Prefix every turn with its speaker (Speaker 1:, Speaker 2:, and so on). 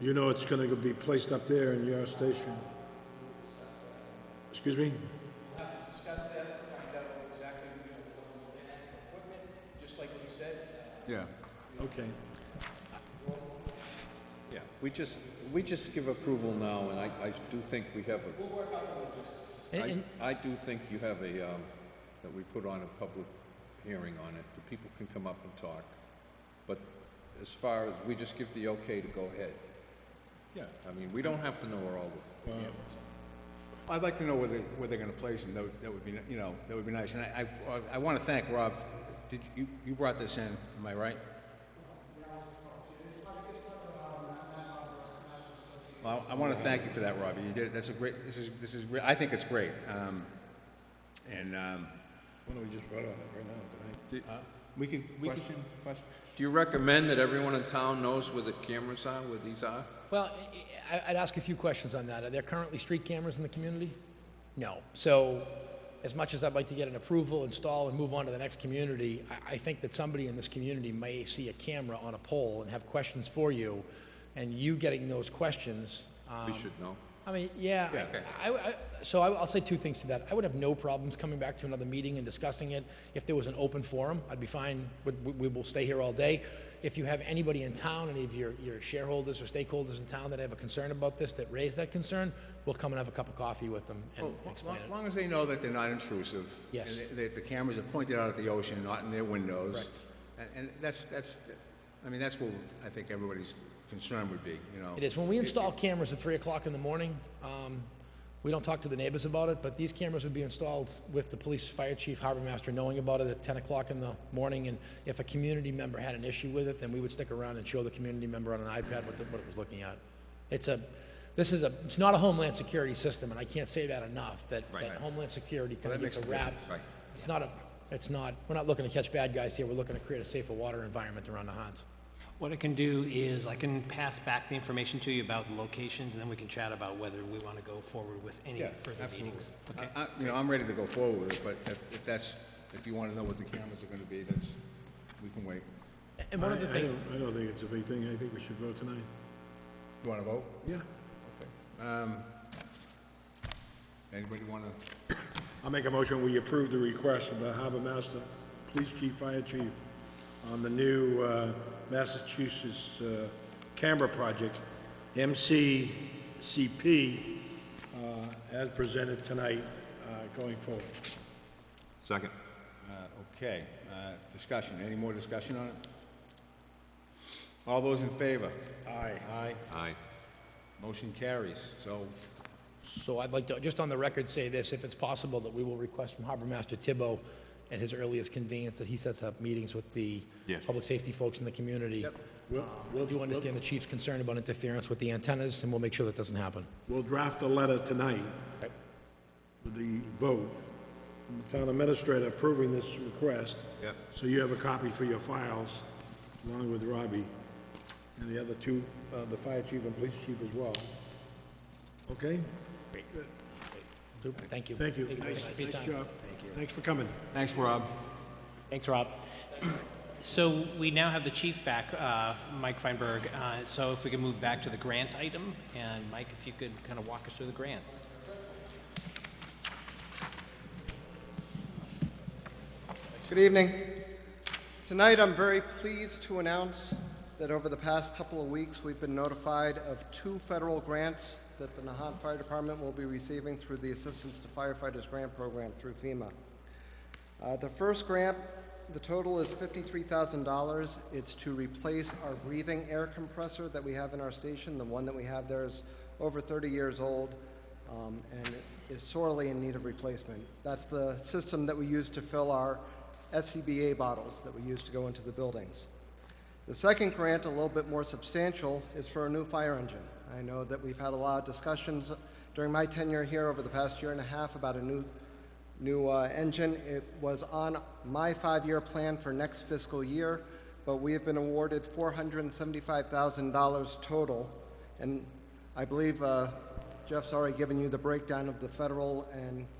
Speaker 1: You know it's gonna be placed up there in your station. Excuse me?
Speaker 2: Yeah.
Speaker 1: Okay.
Speaker 3: Yeah, we just, we just give approval now, and I, I do think we have a,
Speaker 4: And-
Speaker 3: I,
Speaker 4: and-
Speaker 3: I do think you have a, um, that we put on a public hearing on it, the people can come up and talk. But as far as, we just give the okay to go ahead.
Speaker 2: Yeah.
Speaker 3: I mean, we don't have to know where all the,
Speaker 2: I'd like to know where they, where they're gonna place them, that would, that would be, you know, that would be nice, and I, I, I wanna thank Rob, did, you, you brought this in, am I right? Well, I wanna thank you for that, Robbie, you did, that's a great, this is, this is, re- I think it's great, um, and, um,
Speaker 1: Why don't we just vote on it right now,
Speaker 2: we can, we can.
Speaker 3: do you recommend that everyone in town knows where the cameras are, where these are?
Speaker 4: Well, I- I- I'd ask a few questions on that. Are there currently street cameras in the community? No. So as much as I'd like to get an approval, install, and move on to the next community, I, I think that somebody in this community may see a camera on a pole and have questions for you, and you getting those questions, um,
Speaker 3: We should know.
Speaker 4: I mean, yeah, I- I, I, so I, I'll say two things to that. I would have no problems coming back to another meeting and discussing it. If there was an open forum, I'd be fine, we, we- we will stay here all day. If you have anybody in town, any of your, your shareholders or stakeholders in town that have a concern about this, that raise that concern, we'll come and have a cup of coffee with them and
Speaker 2: Well,
Speaker 4: explain
Speaker 2: As
Speaker 4: it.
Speaker 2: long as they know that they're not intrusive.
Speaker 4: Yes.
Speaker 2: and That the cameras are pointed out at the ocean, not in their windows. And, and that's, that's, I mean, that's what I think everybody's concern would be, you know?
Speaker 4: It is, when we install cameras at three o'clock in the morning, um, we don't talk to the neighbors about it, but these cameras would be installed with the police, fire chief, harbor master knowing about it at ten o'clock in the morning, and if a community member had an issue with it, then we would stick around and show the community member on an iPad what, the- what it was looking at. It's a, this is a, it's not a homeland security system, and I can't say that enough, that, that homeland security kind of gets a rap. It's not a, it's not, we're not looking to catch bad guys here, we're looking to create a safer water environment around the Hans.
Speaker 5: What I can do is I can pass back the information to you about the locations, and then we can chat about whether we want to go forward with any
Speaker 2: Yeah,
Speaker 5: further
Speaker 2: absolutely.
Speaker 5: meetings.
Speaker 2: I- I, you know, I'm ready to go forward with it, but if, if that's, if you wanna know what the cameras are gonna be, that's, we can wait.
Speaker 4: And one of the
Speaker 1: right? I- I
Speaker 4: things.
Speaker 1: don't- I don't think it's a big thing, I think we should vote tonight.
Speaker 2: You wanna vote? Um,
Speaker 1: Yeah.
Speaker 2: Anybody wanna?
Speaker 1: I'll make a motion, we approve the request of the harbor master, police chief, fire chief, on the new uh, Massachusetts uh, camera project, MCCP, uh, as presented tonight, uh, going forward.
Speaker 3: Second.
Speaker 2: Uh, Okay, uh, discussion, any more discussion on it? All those in favor?
Speaker 1: Aye.
Speaker 2: Aye,
Speaker 3: Aye.
Speaker 2: motion carries, so
Speaker 4: So I'd like to, just on the record, say this, if it's possible, that we will request from Harbor Master Tibbo at his earliest convenience that he sets up meetings with the
Speaker 3: Yes.
Speaker 4: public safety folks in the community.
Speaker 1: We'll-
Speaker 4: We
Speaker 1: we'll-
Speaker 4: do understand the chief's concern about interference with the antennas, and we'll make sure that doesn't happen.
Speaker 1: We'll draft a letter tonight
Speaker 4: Okay.
Speaker 1: with the vote, from the town administrator approving this request.
Speaker 3: Yep.
Speaker 1: So you have a copy for your files, along with Robbie, and the other two, uh, the fire chief and police chief as well. Okay?
Speaker 4: Super, Thank you.
Speaker 1: Thank you.
Speaker 4: very
Speaker 1: Nice
Speaker 4: much for your
Speaker 1: nice
Speaker 4: time.
Speaker 1: job. Thanks for coming.
Speaker 2: Thanks, Rob.
Speaker 5: Thanks, Rob. So we now have the chief back, uh, Mike Feinberg. Uh, So if we can move back to the grant item, and Mike, if you could kind of walk us through the grants.
Speaker 6: Good evening. Tonight, I'm very pleased to announce that over the past couple of weeks, we've been notified of two federal grants that the Nahant Fire Department will be receiving through the Assistance to Firefighters Grant Program through FEMA. Uh, the first grant, the total is $53,000. It's to replace our breathing air compressor that we have in our station. The one that we have there is over 30 years old um, and is sorely in need of replacement. That's the system that we use to fill our SCBA bottles that we use to go into the buildings. The second grant, a little bit more substantial, is for a new fire engine. I know that we've had a lot of discussions during my tenure here over the past year and a half about a new, new uh, engine. It was on my five-year plan for next fiscal year, but we have been awarded $475,000 total, and I believe uh, Jeff's already given you the breakdown of the federal and